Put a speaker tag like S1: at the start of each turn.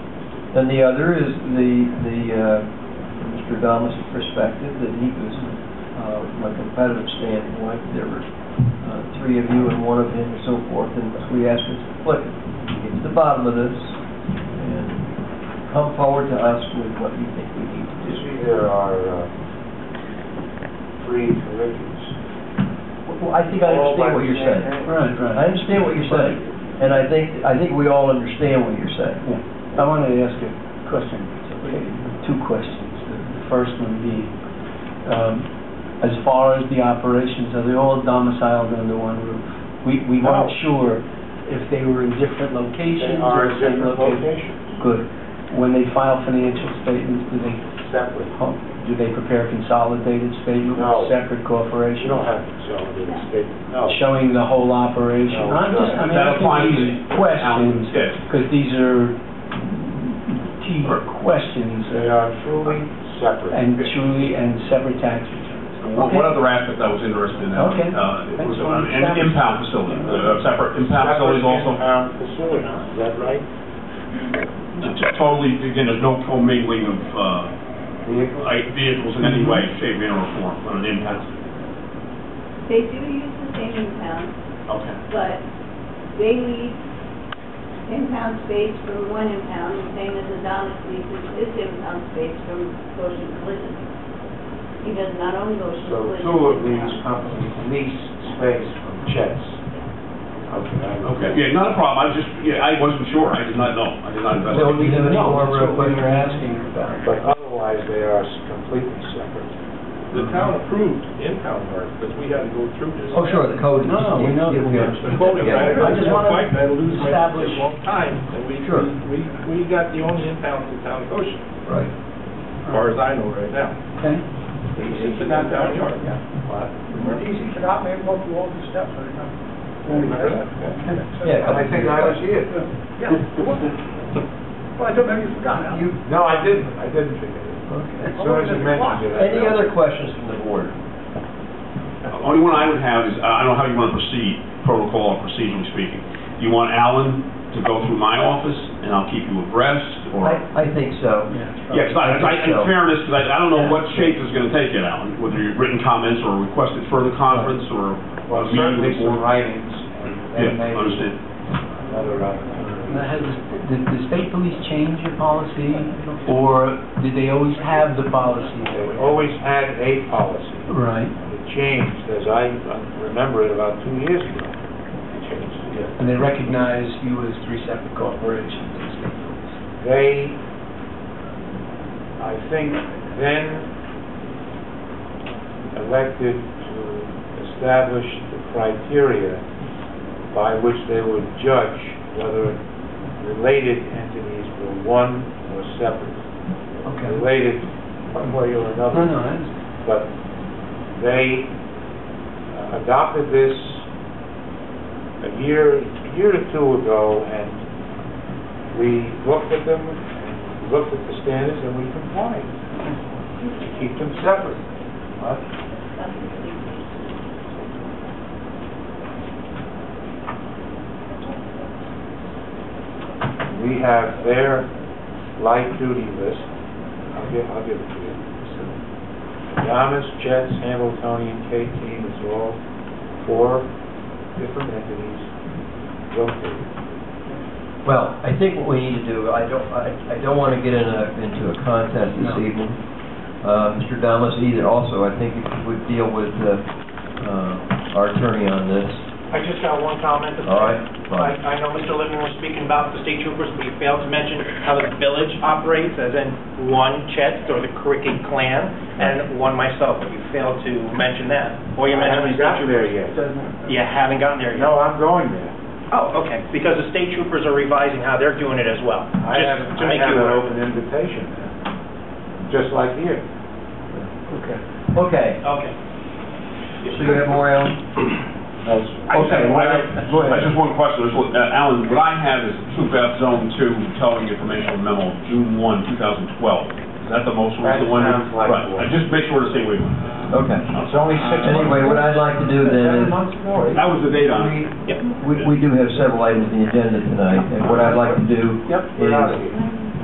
S1: And the other is the, the, uh, Mr. Adamas' perspective that he was, uh, from a competitive standpoint, there were, uh, three of you and one of him and so forth, and we asked him, look, get to the bottom of this and come forward to us with what you think we need to do.
S2: You see, there are uh, three curriculums.
S1: Well, I think I understand what you're saying.
S3: Right,
S1: I
S3: right.
S1: understand what you're saying, and I think, I think we all understand what you're saying.
S3: Yeah. I wanted to ask a question, two questions. The first one being, um, as far as the operations, are they all domiciled under one roof? We, we
S2: No.
S3: weren't sure if they were in different
S2: They
S3: locations.
S2: are
S3: or
S2: in
S3: if they
S2: different
S3: located-
S2: locations,
S3: Good. When they file financial statements, do they,
S2: separate.
S3: do they prepare consolidated statements?
S2: No. You
S3: Separate corporation?
S2: don't have consolidated statements, no.
S3: showing the whole operation.
S2: No,
S3: I'm just,
S2: sure.
S3: I'm
S4: That'll find
S3: asking these
S4: it.
S3: questions,
S4: Yes.
S3: because these are key questions,
S2: They
S3: uh,
S2: are truly separate.
S3: and truly, and separate tax returns.
S4: One one other aspect I was interested in, uh,
S3: Okay.
S4: uh, it
S3: Thanks
S4: was
S3: for
S4: on an
S3: understanding.
S4: impound facility, uh, separate impound facilities also.
S2: Separate in-house facilities, is that right?
S4: It's Totally, again, there's no commingling of uh,
S2: Vehicles?
S4: like, vehicles in any way, shape, manner, or form on an impound.
S5: They do use the same impound,
S4: Okay.
S5: but they leave impound space for one impound, the same as Adonis leases his impound space for Goshen Collision. He does not own Goshen
S2: So
S5: Collision.
S2: two of these companies lease space from Chet's. Okay, I
S4: Okay, yeah, not a problem, I was just, yeah, I wasn't sure, I did not know, I did not investigate.
S3: Don't need any
S2: No,
S3: more
S2: that's
S3: real
S2: what we
S3: quick
S2: were
S3: for asking
S2: But
S3: about.
S2: otherwise, they are completely separate.
S6: The town approved impound park, because we had to go through this.
S1: Oh, sure, the code is.
S3: No, we know that we are.
S6: The voting,
S1: Yeah,
S6: I
S3: I just wanna
S6: fight, I lose my
S3: establish-
S6: long time, and we,
S1: Sure.
S6: we, we got the only impound in town of Goshen,
S1: Right.
S6: as far as I know right now.
S3: Okay?
S6: It's in that town yard.
S2: What?
S7: Easy to not make one through all these steps, I don't know.
S1: Yeah,
S2: I think I was here.
S7: Yeah. Well, I don't know, you forgot, Al.
S2: You, no, I didn't, I didn't think of it. As soon as you mentioned it. I
S1: Any
S2: realized-
S1: other questions from the board?
S4: The Only one I would have is, uh, I don't know how you want to proceed, protocol or procedurally speaking. Do you want Alan to go through my office, and I'll keep you abreast, or?
S1: I, I think so.
S4: Yeah, 'cause I, I- in
S1: So-
S4: fairness, 'cause I, I don't know what shape it's gonna take it, Alan, whether you've written comments or requested further conference or.
S2: Well, certainly some writings, and then
S4: Yeah,
S2: maybe
S4: understand.
S2: another opportunity.
S3: Now, has, did the state police change your policy, or did they always have the policy?
S2: They always had a policy.
S3: Right,
S2: It changed, as I uh, remember it about two years ago. It changed, yeah.
S3: and they recognized you as three separate corporations, the state police.
S2: They, I think, then elected to establish the criteria by which they would judge whether related entities were one or separate.
S3: Okay.
S2: Related one way or another.
S3: No, no, I understand.
S2: but they uh, adopted this a year, a year or two ago, and we looked at them, and we looked at the standards, and we complied to keep them separate. But We have their light duty list, I'll give, I'll give it to you. Yamas, Jets, Hamiltonian, K-Team, it's all four different entities located.
S1: Well, I think what we need to do, I don't, I, I don't want to get in a, into a contest this
S3: No.
S1: evening. Uh, Mr. Domas either also, I think if you would deal with, uh, uh, our attorney on this.
S8: I just got one comment.
S1: All right,
S8: I,
S1: fine.
S8: I know Mr. Lippman was speaking about the state troopers, but he failed to mention how the village operates, as in one Chet or the Cricket clan, and one myself, but you failed to mention that. Or you
S2: I
S8: mentioned
S2: haven't
S8: the state
S2: gotten there
S8: troopers.
S2: yet.
S8: You haven't gotten there yet?
S2: No, I'm going there.
S8: Oh, okay, because the state troopers are revising how they're doing it as well.
S2: I
S8: just
S2: have,
S8: to
S2: I
S8: make
S2: have
S8: you
S2: an
S8: aware.
S2: open invitation now, just like here.
S1: Okay. Okay,
S8: Okay.
S1: so you have more, Alan?
S4: I just have,
S1: Okay,
S4: I
S1: go
S4: have-
S1: ahead.
S4: I just one question, It's what- uh, Alan, what I have is Troop F Zone Two Towing Informational Memo, of June one, two thousand twelve. Is that the most
S2: That
S4: recent one?
S2: sounds like
S4: Right,
S2: one.
S4: I just make sure to say, wait,
S1: Okay.
S2: It's only six months.
S1: Anyway, what I'd like to do then is,
S2: Seven months more.
S4: that was the date on it.
S1: we, we do have several items on the agenda tonight, and what I'd like to do
S2: Yep, we're out of here.